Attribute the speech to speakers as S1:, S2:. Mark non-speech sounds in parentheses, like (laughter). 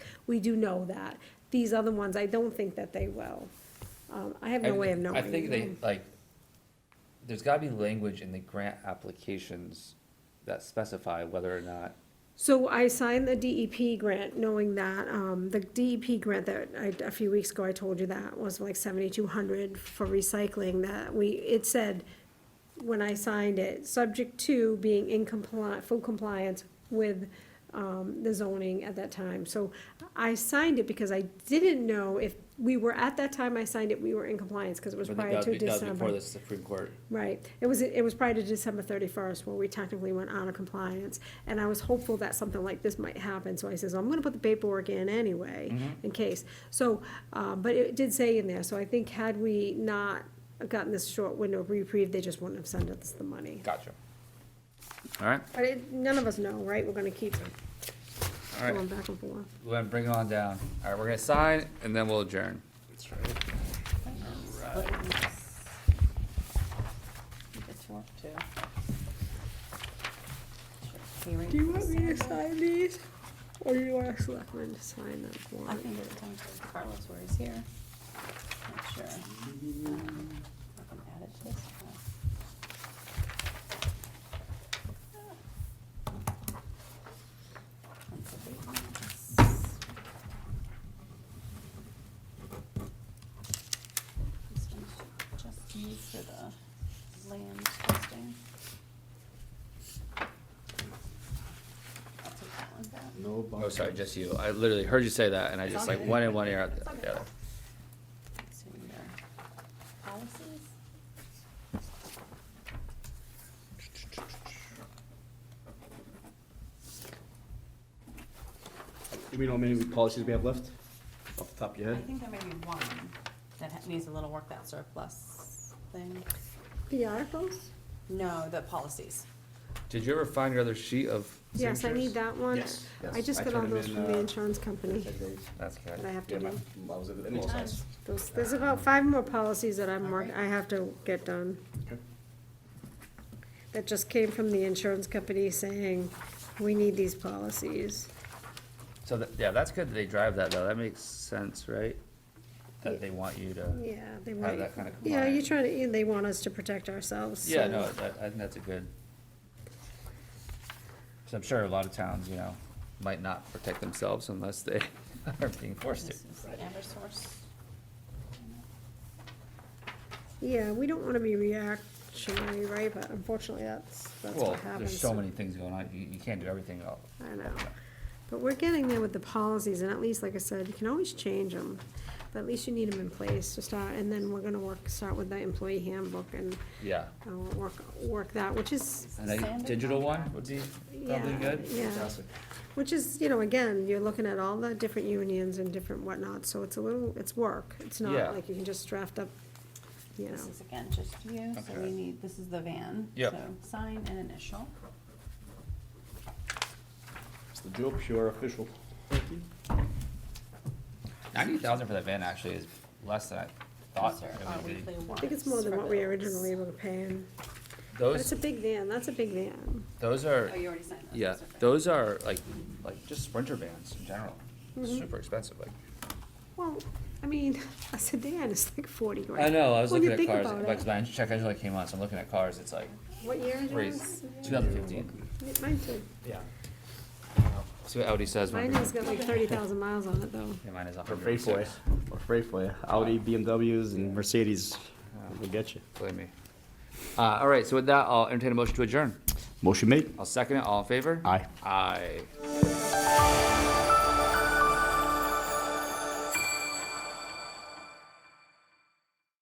S1: we do know that. These other ones, I don't think that they will. Um, I have no way of knowing.
S2: I think they, like, there's gotta be language in the grant applications that specify whether or not,
S1: So I signed the DEP grant, knowing that, um, the DEP grant that I, a few weeks ago, I told you that was like seventy-two hundred for recycling, that we, it said, when I signed it, subject to being in compliant, full compliance with, um, the zoning at that time. So I signed it because I didn't know if, we were, at that time I signed it, we were in compliance, cause it was
S2: but
S1: prior
S2: that
S1: to
S2: was, that was
S1: December.
S2: before the Supreme Court.
S1: Right, it was, it was prior to December thirty-first where we technically went out of compliance, and I was hopeful that something like this might happen, so I says, I'm gonna put the paperwork in anyway,
S3: Mm-hmm.
S1: in case. So, uh, but it did say in there, so I think had we not gotten this short window of reprieve, they just wouldn't have sent us the money.
S2: Gotcha. All right,
S1: But it, none of us know, right, we're gonna keep
S2: all right,
S1: going back and forth.
S2: we're gonna bring it on down. All right, we're gonna sign and then we'll adjourn.
S3: That's right.
S4: It's work too. Hearing
S1: Do you want me to
S4: consent.
S1: sign these, or do you want a selectman to sign that for
S4: I think it comes from Carlos where he's here. Not sure. Um, I can add it to this. That's a big mess. This one's just used for the land testing. I'll take that one back.
S3: No
S2: Oh,
S3: bumpers.
S2: sorry, just you. I literally heard you say that and I
S4: It's
S2: just
S4: all
S2: like
S4: good.
S2: one in one ear out
S4: It's
S2: the
S4: all good.
S2: other.
S4: So we are policies.
S3: Do we know how many policies we have left? Off the top of your
S4: I
S3: head?
S4: think there may be one that ha- needs a little work, that surplus thing.
S1: The articles?
S4: No, the policies.
S2: Did you ever find your other sheet of
S1: Yes, I need
S2: signatures?
S1: that one.
S3: Yes.
S1: I just
S3: I
S1: got all
S3: turned them
S1: those
S3: in,
S1: from the
S3: uh,
S1: insurance company
S3: Ten days.
S2: That's
S1: that I
S2: good.
S1: have
S3: Yeah,
S1: to do.
S3: my- I was at the
S4: Good time.
S3: policies.
S1: There's, there's about five more policies that I'm work,
S4: Alright.
S1: I have to get done.
S3: Okay.
S1: That just came from the insurance company saying, we need these policies.
S2: So, that- yeah, that's good that they drive that though. That makes sense, right? That they want you to,
S1: Yeah, they
S2: Have
S1: want.
S2: that kinda
S1: Yeah, you're
S2: compliant.
S1: trying to, they want us to protect ourselves.
S2: yeah,
S1: so-
S2: no, that, I think that's a good. So I'm sure a lot of towns, you know, might not protect themselves unless they (laughs) are being forced to.
S4: This is the Eversource.
S1: Yeah, we don't wanna be reactionary, right, but unfortunately, that's, that's
S2: Well,
S1: what happens.
S2: there's so many things going on. You, you can't do everything all.
S1: I know. But we're getting there with the policies, and at least, like I said, you can always change them. But at least you need them in place to start, and then we're gonna work, start with the employee handbook and,
S2: Yeah.
S1: uh, work, work that, which is,
S4: It's the
S2: And a
S4: standard
S2: digital one
S4: contract.
S2: would be probably
S1: yeah,
S2: good.
S1: yeah. Which is, you know, again, you're looking at all the different unions and different whatnot, so it's a little, it's work. It's
S2: Yeah.
S1: not like you can just draft up, you know.
S4: This is again just you, so
S2: Okay.
S4: we need, this is the van.
S2: Yep.
S4: So sign and initial.
S3: It's the Joe Pure official.
S2: Ninety thousand for that van actually is less than I thought.
S4: These are
S2: it
S4: our
S2: would be.
S4: weekly
S1: I think it's more
S4: warrants
S1: than
S4: for
S1: what we
S4: bills.
S1: originally were paying. But it's
S2: Those,
S1: a big van, that's a big van.
S2: those are,
S4: Oh, you already signed those.
S2: yeah,
S4: okay.
S2: those are like, like just Sprinter vans in general.
S1: Mm-hmm.
S2: Super expensive, like.
S1: Well, I mean, (laughs) a sedan is like forty grand.
S2: I know, I was
S1: When you
S2: looking at
S1: think
S2: cars,
S1: about
S2: like,
S1: it.
S2: my eng- check engine light came on, so I'm looking at cars, it's like,
S1: What year is yours?
S2: crazy, two thousand fifteen.
S1: Yeah, Mine too.
S2: Yeah. See what Audi says. when
S1: Mine
S2: we-
S1: has got like thirty thousand miles on it though.
S2: Yeah, mine is a
S3: We're
S2: hundred
S3: afraid
S2: and
S3: for you.
S2: six,
S3: We're afraid for you. Audi, BMWs and Mercedes. We'll get you.
S2: believe me. Uh, all right, so with that, I'll entertain a motion to adjourn.
S3: Motion made.
S2: I'll second it, all in favor?
S3: Aye.
S2: Aye.